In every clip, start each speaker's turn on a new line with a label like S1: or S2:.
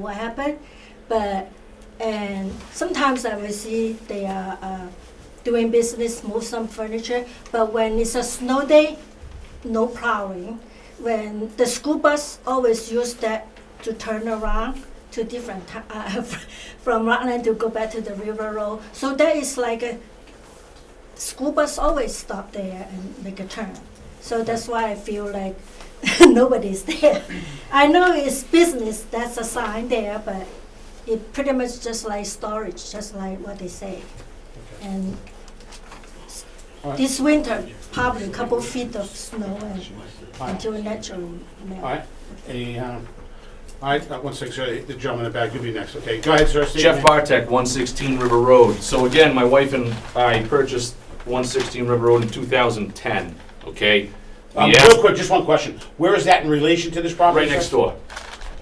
S1: what happened, but and sometimes I will see they are uh, doing business, move some furniture. But when it's a snow day, no plowing. When the school bus always use that to turn around to different ti- uh, from Rockland to go back to the River Road. So that is like a school bus always stop there and make a turn. So that's why I feel like nobody's there. I know it's business, that's a sign there, but it pretty much just like storage, just like what they say. And s-
S2: Alright.
S1: this winter, probably a couple feet of snow and
S2: All right,
S1: until natural
S2: all
S1: melt.
S2: right. Any, um, all right, uh, one sec, sir. the gentleman in the back, you'll be next, okay? Go ahead, sir. state your
S3: Jeff uh,
S2: name.
S3: Bartek, 116 River Road. So again, my wife and I purchased 116 River Road in 2010, okay?
S2: Um,
S3: We asked-
S2: real quick, just one question. Where is that in relation to this property?
S3: Right
S2: sir?
S3: next door.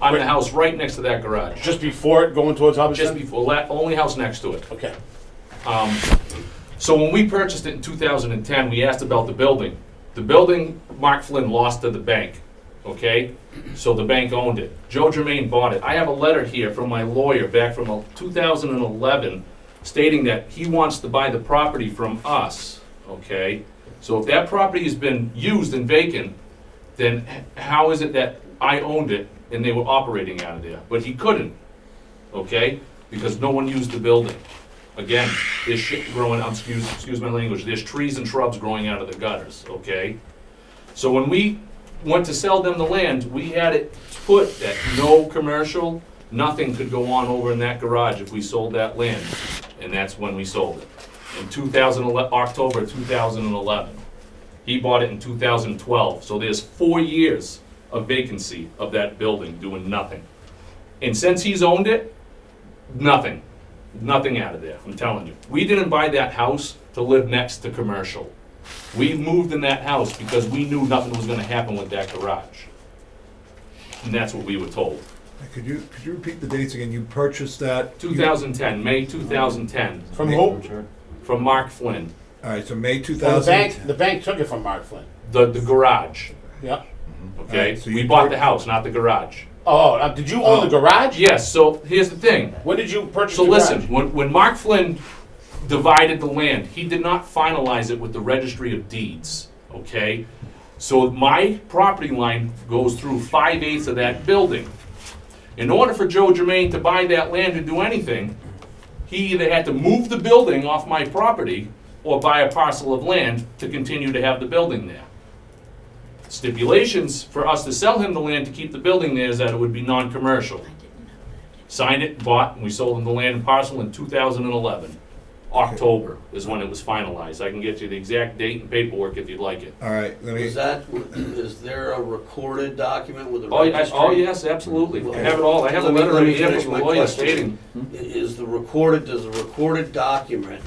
S3: I'm in the house right next to that garage,
S2: Just before it, going towards
S3: just
S2: Hubbardston?
S3: before, la- only house next to it.
S2: Okay,
S3: Um, So when we purchased it in 2010, we asked about the building. The building, Mark Flynn lost to the bank, okay? So the bank owned it. Joe Germain bought it. I have a letter here from my lawyer back from uh, 2011 stating that he wants to buy the property from us, okay? So if that property has been used and vacant, then h- how is it that I owned it and they were operating out of there? But he couldn't, okay? Because no one used the building. Again, there's shit growing, um, excuse, excuse my language, there's trees and shrubs growing out of the gutters, okay? So when we went to sell them the land, we had it put that no commercial, nothing could go on over in that garage if we sold that land. And that's when we sold it, in 2011, October 2011. He bought it in 2012, so there's four years of vacancy of that building doing nothing. And since he's owned it, nothing nothing out of there, I'm telling you. We didn't buy that house to live next to commercial. We moved in that house because we knew nothing was gonna happen with that garage. And that's what we were told.
S4: Could you, could you repeat the dates again? You purchased that? you-
S3: 2010, May 2010,
S2: from who?
S3: from Mark Flynn,
S4: All right, so May two
S2: Well, the
S4: thousand.
S2: bank, the bank took it from Mark Flynn.
S3: the, the garage,
S2: Yeah.
S3: okay?
S4: Alright, so
S3: We
S4: you
S3: bought
S4: pur-
S3: the house, not the garage.
S2: Oh, uh, did you own the garage?
S3: Yes, so here's the thing.
S2: When did you purchase
S3: So
S2: the garage?
S3: listen, when, when Mark Flynn divided the land, he did not finalize it with the registry of deeds, okay? So my property line goes through five eighths of that building. In order for Joe Germain to buy that land and do anything, he either had to move the building off my property or buy a parcel of land to continue to have the building there. Stipulations for us to sell him the land to keep the building there is that it would be non-commercial signed it, bought, and we sold them the land and parcel in 2011. October is when it was finalized. I can get you the exact date and paperwork if you'd like it.
S4: All right, let me,
S5: Is that, is there a recorded document with the
S3: Oh, yes,
S5: registry?
S3: oh, yes, absolutely. I have it all. I have a
S5: Let me-
S3: letter
S5: let
S3: right
S5: me
S3: here
S5: finish
S3: from the
S5: my
S3: lawyer
S5: question.
S3: stating.
S5: I- Is the recorded, does the recorded document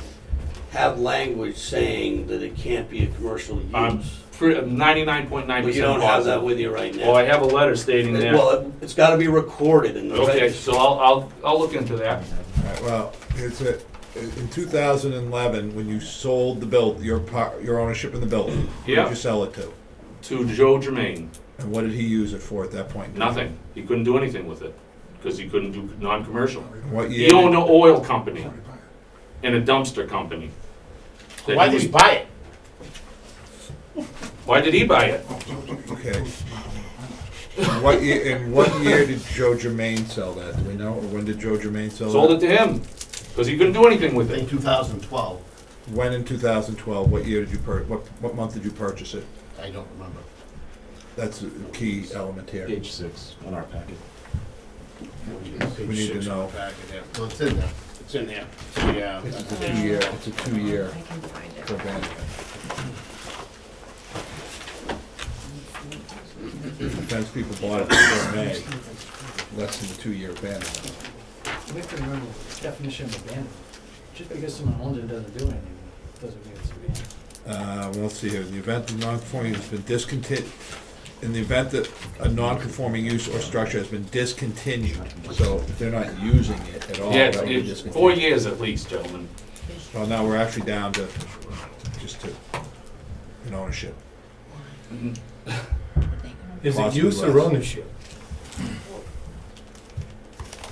S5: have language saying that it can't be a commercial
S3: I'm
S5: use?
S3: pre- I'm 99.9%
S5: But you don't have that
S3: positive.
S5: with you right
S3: Well, Oh, I
S5: now.
S3: have a letter stating that.
S5: Well, uh, it- it's gotta be recorded in the
S3: Okay,
S5: registry.
S3: so I'll, I'll, I'll look into that.
S4: all right, well, it's a, in two thousand and eleven, when you sold the build, your par, your ownership in the building. Who
S3: Yeah.
S4: did you sell it to?
S3: To Joe Germain,
S4: And what did he use it for at that point? in time?
S3: nothing. He couldn't do anything with it because he couldn't do non-commercial.
S4: What year?
S3: He owned an oil company and a dumpster company. that
S2: Why
S3: he
S2: did
S3: was-
S2: he buy it?
S3: Why did he buy it?
S4: Okay. And What year, and what year did Joe Germain sell that? Do we know? Or when did Joe Germain sell
S3: Sold it to
S4: that?
S3: him because he couldn't do anything with it.
S6: 2012,
S4: When in two thousand twelve? What year did you pur, what, what month did you purchase it?
S6: I don't remember.
S4: That's a key element here.
S7: Page six on our packet.
S4: We need to know.
S6: Well, it's in there.
S2: It's uh, in there. Yeah.
S4: It's a two-year, it's a two-year prevent. Sometimes people bought it before May, less than a two-year ban.
S8: We have to remember the definition of abandonment. Just because someone owns it doesn't do anything, doesn't mean it's abandoned.
S4: Uh, well, let's see here, in the event of non-conforming has been discontinued, in the event that a non-conforming use or structure has been discontinued, so they're not using it at all.
S3: Yeah, it's-
S4: that would be
S3: it's
S4: discontinued.
S3: four years at least, gentlemen.
S4: Well, now we're actually down to, just to, an ownership.
S9: Is it
S4: Possibly
S9: use or
S4: less.
S9: ownership?